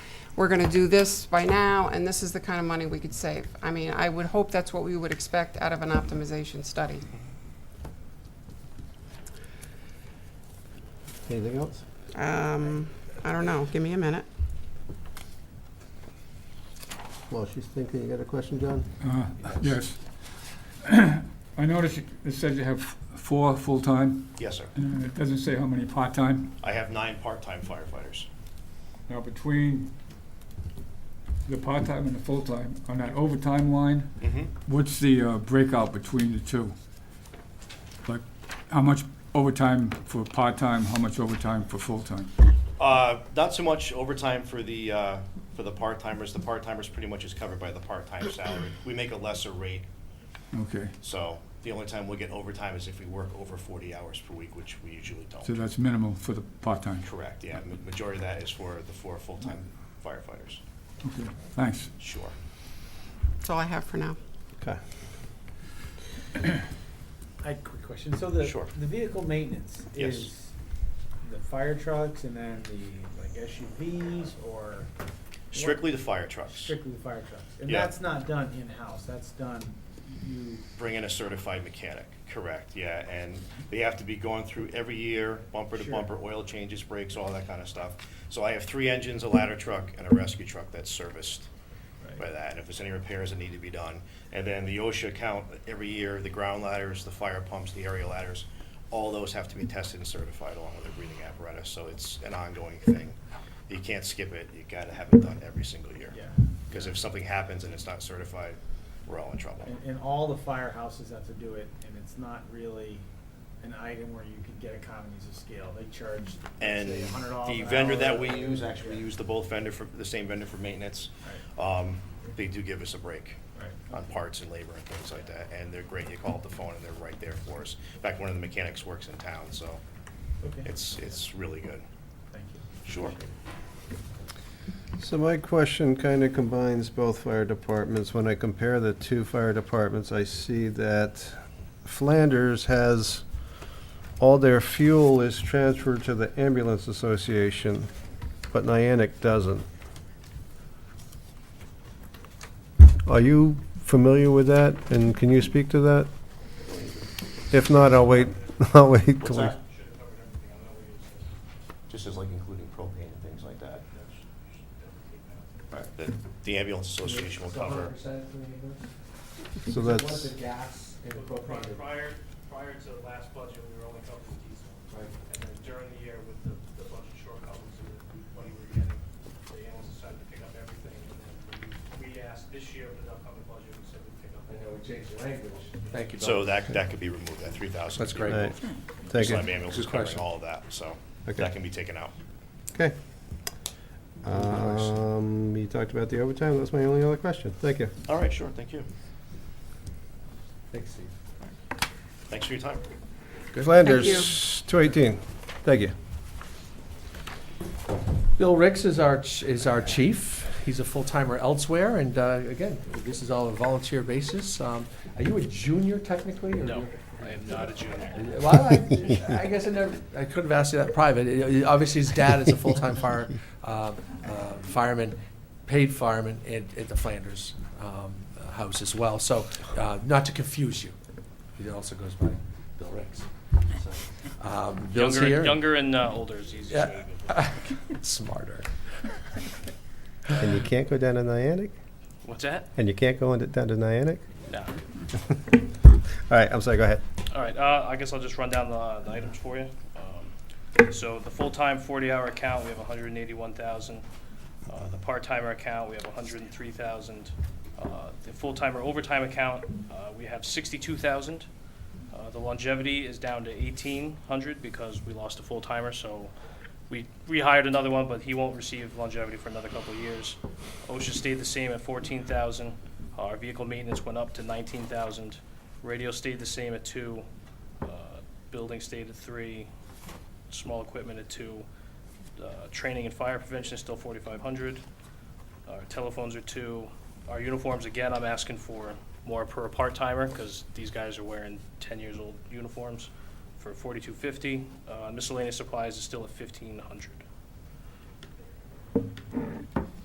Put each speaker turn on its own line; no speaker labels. we're gonna do this by now, and this is the kind of money we could save. I mean, I would hope that's what we would expect out of an optimization study.
Anything else?
Um, I don't know, give me a minute.
Well, she's thinking, you got a question, John?
Uh, Yes. I noticed you- it says you have four full-time,
Yes, sir.
and it doesn't say how many part-time.
I have nine part-time firefighters.
Now, between the part-time and the full-time, on that overtime line,
Mm-hmm.
what's the uh, breakout between the two? Like, how much overtime for part-time, how much overtime for full-time?
Uh, not so much overtime for the, uh, for the part-timers. The part-timers pretty much is covered by the part-time salary. We make a lesser rate,
Okay,
so the only time we get overtime is if we work over forty hours per week, which we usually
so
don't.
that's minimal for the part-time.
Correct, yeah. Ma- Majority of that is for the four full-time firefighters.
Okay, thanks.
Sure.
That's all I have for now.
Okay.
I had a quick question. So the,
Sure.
the vehicle maintenance
Yes.
is the fire trucks and then the like SUVs or
Strictly the fire trucks.
strictly the fire trucks? And
Yeah.
that's not done in-house, that's done, you,
Bring in a certified mechanic, correct, yeah. And they have to be going through every year, bumper to
Sure.
bumper, oil changes, brakes, all that kind of stuff. So I have three engines, a ladder truck, and a rescue truck that's serviced. by that, and if there's any repairs that need to be done. And then the OSHA count, every year, the ground ladders, the fire pumps, the area ladders, all those have to be tested and certified along with the breathing apparatus, so it's an ongoing thing. You can't skip it, you gotta have it done every single year.
yeah.
Because if something happens and it's not certified, we're all in trouble.
And, and all the firehouses have to do it and it's not really an item where you can get economies of scale. They charge,
And
say, a hundred dollars
the
an
vendor
hour.
that we use, actually, we
Yeah.
use the both vendor for, the same vendor for maintenance. Um, They do give us a break.
Right,
on parts and labor and things like that, and they're great. You call up the phone and they're right there for us. In fact, one of the mechanics works in town, so
okay,
it's, it's really good.
thank you.
Sure.
So my question kind of combines both fire departments. When I compare the two fire departments, I see that Flanders has, all their fuel is transferred to the ambulance association, but Niantic doesn't. Are you familiar with that, and can you speak to that? If not, I'll wait, I'll wait till... we-
Just as like including propane and things like that. Right, the, the ambulance association will cover.
So
What's
that's,
the gas and propane?
Prior, prior- prior to the last budget, we were only covering diesel. And then during the year with the, the budget shortcomings and the money we were getting, the animals decided to pick up everything. And then we- we asked this year for the upcoming budget, we said we'd pick up.
I know we changed the language. Thank you.
So that, that could be removed, that three thousand.
That's great.
right, thank
Just
you.
have ambulance
Good
covering
question.
all of that, so
Okay.
that can be taken out.
Okay. Um, you talked about the overtime, that's my only other question, thank you.
All right, sure, thank you.
Thanks, Steve.
Thanks for your time.
Flanders, two eighteen, thank you.
Bill Ricks is our, ch- is our chief. He's a full-timer elsewhere, and uh, again, this is all a volunteer basis. Um, Are you a junior technically? No,
I am not a junior.
Well, I I guess I never, I could have asked you that private. It- it- Obviously, his dad is a full-time fire, uh, uh, fireman, paid fireman at, at the Flanders um, House as well. So, uh, not to confuse you, he also goes by Bill Ricks. So, um, Bill's
Younger-
here.
Younger and uh, older is easier.
Yeah. Smarter.
And you can't go down to Niantic?
What's that?
And you can't go into, down to Niantic?
No.
All right, I'm sorry, go ahead.
All right, uh, I guess I'll just run down the, the items for you. Um, So the full-time forty-hour account, we have hundred and eighty-one thousand. Uh, the part-timer account, we have hundred and three thousand. Uh, the full-timer overtime account, uh, we have sixty-two thousand. Uh, the longevity is down to eighteen hundred because we lost a full-timer, so we rehired another one, but he won't receive longevity for another couple of years. OSHA stayed the same at fourteen thousand. Our vehicle maintenance went up to nineteen thousand. Radio stayed the same at two. Uh, Building stayed at three. Small equipment at two. Uh, Training and fire prevention is still forty-five hundred. Our telephones are two. Our uniforms, again, I'm asking for more per part-timer, because these guys are wearing ten-years-old uniforms for forty-two fifty. Uh, miscellaneous supplies is still at fifteen hundred.